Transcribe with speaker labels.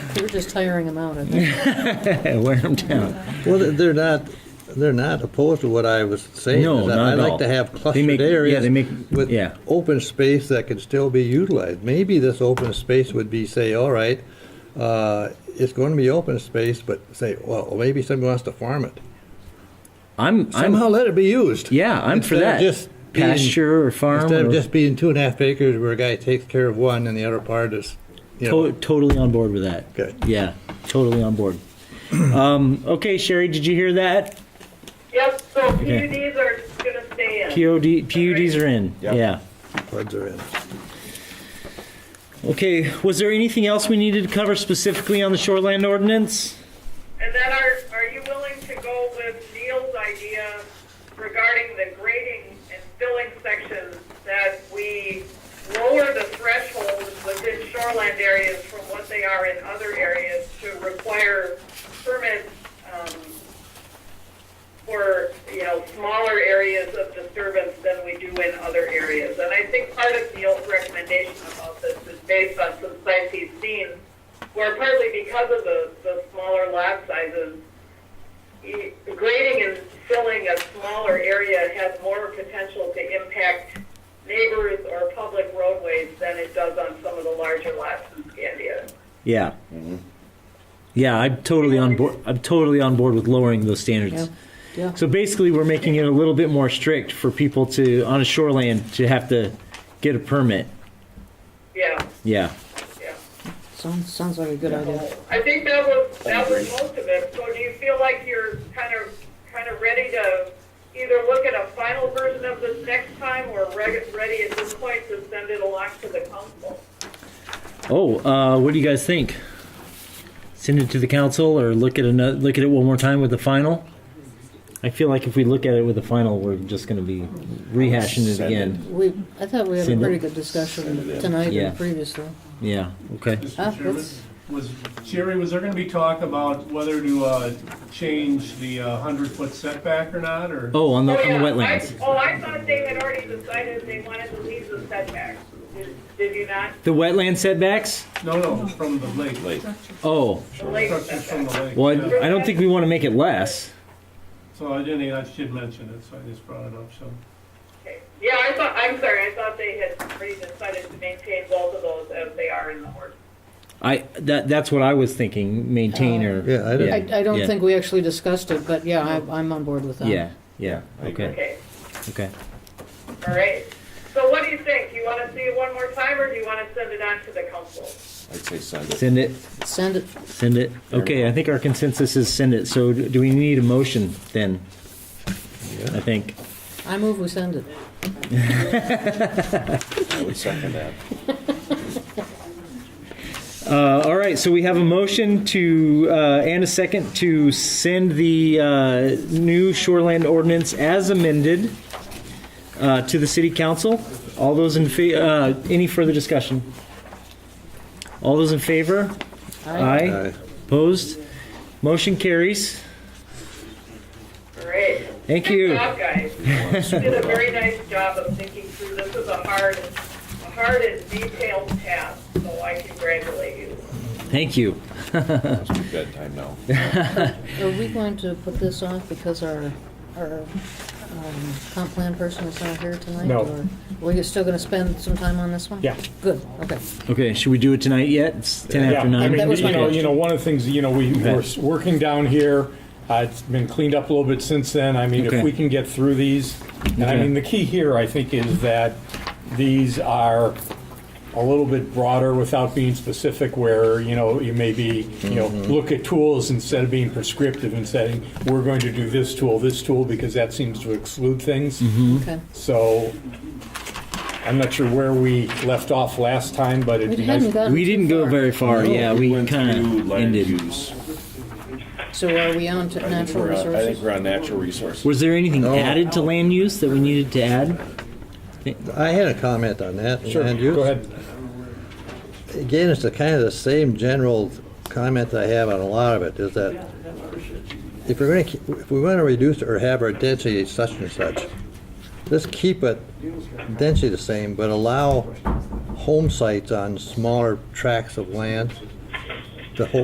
Speaker 1: We're just tiring them out, I think.
Speaker 2: Wear them down.
Speaker 3: Well, they're not, they're not opposed to what I was saying.
Speaker 2: No,
Speaker 3: is that
Speaker 2: not at
Speaker 3: I
Speaker 2: all.
Speaker 3: like to have
Speaker 2: They make-
Speaker 3: clustered
Speaker 2: yeah,
Speaker 3: areas.
Speaker 2: they make-
Speaker 3: With
Speaker 2: yeah.
Speaker 3: open space that can still be utilized. Maybe this open space would be, say, all right, uh, it's going to be open space, but say, well, maybe somebody wants to farm it.
Speaker 2: I'm,
Speaker 3: Somehow
Speaker 2: I'm,
Speaker 3: let it be used.
Speaker 2: yeah, I'm for
Speaker 3: Instead of
Speaker 2: that.
Speaker 3: just being-
Speaker 2: Pasture or farm
Speaker 3: Instead
Speaker 2: or-
Speaker 3: of just being two and a half acres where a guy takes care of one and the other part is, you
Speaker 2: To-
Speaker 3: know,
Speaker 2: totally on board with that.
Speaker 3: Good.
Speaker 2: Yeah, totally on board. um, okay, Sherry, did you hear that?
Speaker 4: Yep, so
Speaker 2: Okay.
Speaker 4: PUDs are gonna stay in.
Speaker 2: POD, PUDs are in.
Speaker 5: Yep.
Speaker 2: Yeah.
Speaker 3: floods are in.
Speaker 2: Okay, was there anything else we needed to cover specifically on the shoreline ordinance?
Speaker 4: And then are, are you willing to go with Neil's idea regarding the grading and filling sections that we lower the thresholds within shoreland areas from what they are in other areas to require permits, um, for, you know, smaller areas of disturbance than we do in other areas. And I think part of Neil's recommendation about this is based on some sites he's seen, where partly because of the, the smaller lot sizes, e- grading and filling a smaller area has more potential to impact neighbors or public roadways than it does on some of the larger lots in Scandia.
Speaker 2: Yeah.
Speaker 3: Mm-hmm.
Speaker 2: Yeah, I'm totally on board. I'm totally on board with lowering those standards.
Speaker 1: Yeah.
Speaker 2: So basically, we're making it a little bit more strict for people to on a shoreline to have to get a permit.
Speaker 4: Yeah,
Speaker 2: Yeah.
Speaker 4: yeah.
Speaker 1: Sounds, sounds like a good idea.
Speaker 4: I think that was, that was most of it. So do you feel like you're kind of, kind of ready to either look at a final version of this next time or re- ready at this point to send it along to the council?
Speaker 2: Oh, uh, what do you guys think? Send it to the council or look at another, look at it one more time with the final? I feel like if we look at it with the final, we're just going to be rehashing it
Speaker 5: Send it.
Speaker 2: again.
Speaker 1: We, I thought we had a
Speaker 2: Send it.
Speaker 1: pretty good discussion tonight
Speaker 2: Yeah.
Speaker 1: and previously.
Speaker 2: Yeah. Okay.
Speaker 1: Ah,
Speaker 6: Mr. Chairman,
Speaker 1: that's,
Speaker 6: was, Jerry, was there gonna be talk about whether to, uh, change the hundred-foot setback or not, or?
Speaker 2: Oh, on the,
Speaker 4: Oh,
Speaker 2: on the
Speaker 4: yeah. I-
Speaker 2: wetlands.
Speaker 4: Oh, I thought they had already decided they wanted to leave the setback. Did- Did you not?
Speaker 2: The wetland setbacks?
Speaker 6: No, no, from the lake,
Speaker 5: Lake.
Speaker 2: Oh,
Speaker 4: The lake
Speaker 6: structures from
Speaker 4: setback.
Speaker 6: the lake.
Speaker 2: well,
Speaker 6: yeah.
Speaker 2: I, I don't think we want to make it less.
Speaker 6: So I didn't, I should mention it, so I just brought it up, so.
Speaker 4: Okay. Yeah, I thought, I'm sorry, I thought they had already decided to maintain both of those as they are in the ordinance.
Speaker 2: I, that, that's what I was thinking, maintain or.
Speaker 3: Yeah, I don't-
Speaker 1: I, I don't
Speaker 2: yeah,
Speaker 1: think we actually discussed it, but yeah, I, I'm on board with that.
Speaker 2: Yeah, yeah,
Speaker 5: I agree.
Speaker 2: okay,
Speaker 4: Okay.
Speaker 2: okay.
Speaker 4: All right. So what do you think? Do you want to see it one more time, or do you want to send it on to the council?
Speaker 5: I'd say send it.
Speaker 2: Send it,
Speaker 1: Send it,
Speaker 2: send it. Okay, I think our consensus is send it. So do do we need a motion then? I think.
Speaker 1: I move we send it.
Speaker 5: I would second that.
Speaker 2: Uh, all right, so we have a motion to, uh, and a second to send the uh, new shoreland ordinance as amended uh, to the city council. All those in fa, uh, any further discussion? All those in favor?
Speaker 1: Aye.
Speaker 3: Aye.
Speaker 2: Opposed? Motion carries.
Speaker 4: All right.
Speaker 2: Thank
Speaker 4: Good
Speaker 2: you.
Speaker 4: job, guys. You did a very nice job of thinking through. This is a hard, a hard and detailed task, so I congratulate you.
Speaker 2: Thank you.
Speaker 5: It's bedtime now.
Speaker 1: Are we going to put this off because our, our um, comp plan person is not here tonight?
Speaker 7: No.
Speaker 1: or- Well, you're still going to spend some time on this one?
Speaker 7: Yeah.
Speaker 1: Good, okay.
Speaker 2: Okay, should we do it tonight yet? It's 10
Speaker 7: Yeah,
Speaker 2: after
Speaker 7: I
Speaker 2: 9.
Speaker 1: That
Speaker 7: mean,
Speaker 1: was
Speaker 7: you
Speaker 1: my
Speaker 7: know,
Speaker 1: question.
Speaker 7: you know, one of the things, you know, we,
Speaker 2: Okay.
Speaker 7: we're s- working down here, uh, it's been cleaned up a little bit since then, I mean,
Speaker 2: Okay.
Speaker 7: if we can get through these, and I
Speaker 2: Okay.
Speaker 7: mean, the key here, I think, is that these are a little bit broader without being specific, where, you know, you maybe, you know, look at tools instead of being prescriptive and saying, we're going to do this tool, this tool, because that seems to exclude things.
Speaker 1: Okay.
Speaker 7: So, I'm not sure where we left off last time, but it'd
Speaker 1: We
Speaker 7: be nice.
Speaker 1: hadn't gotten
Speaker 2: We didn't
Speaker 1: too
Speaker 2: go
Speaker 1: far.
Speaker 2: very far, yeah, we
Speaker 5: went
Speaker 2: kind
Speaker 5: through
Speaker 2: of
Speaker 5: land
Speaker 2: ended.
Speaker 5: use.
Speaker 1: So are we on to
Speaker 5: I think
Speaker 1: natural
Speaker 5: we're on- I think
Speaker 1: resources?
Speaker 5: we're on natural resources.
Speaker 2: Was there anything
Speaker 3: No.
Speaker 2: added to land use that we needed to add?
Speaker 3: I had a comment on that.
Speaker 7: Sure,
Speaker 3: land use.
Speaker 7: go ahead.
Speaker 3: Again, it's the kind of the same general comment I have on a lot of it, is that if we're gonna, keep- if we wanna reduce or have our density such and such, let's keep it density the same, but allow home sites on smaller tracts of land to hold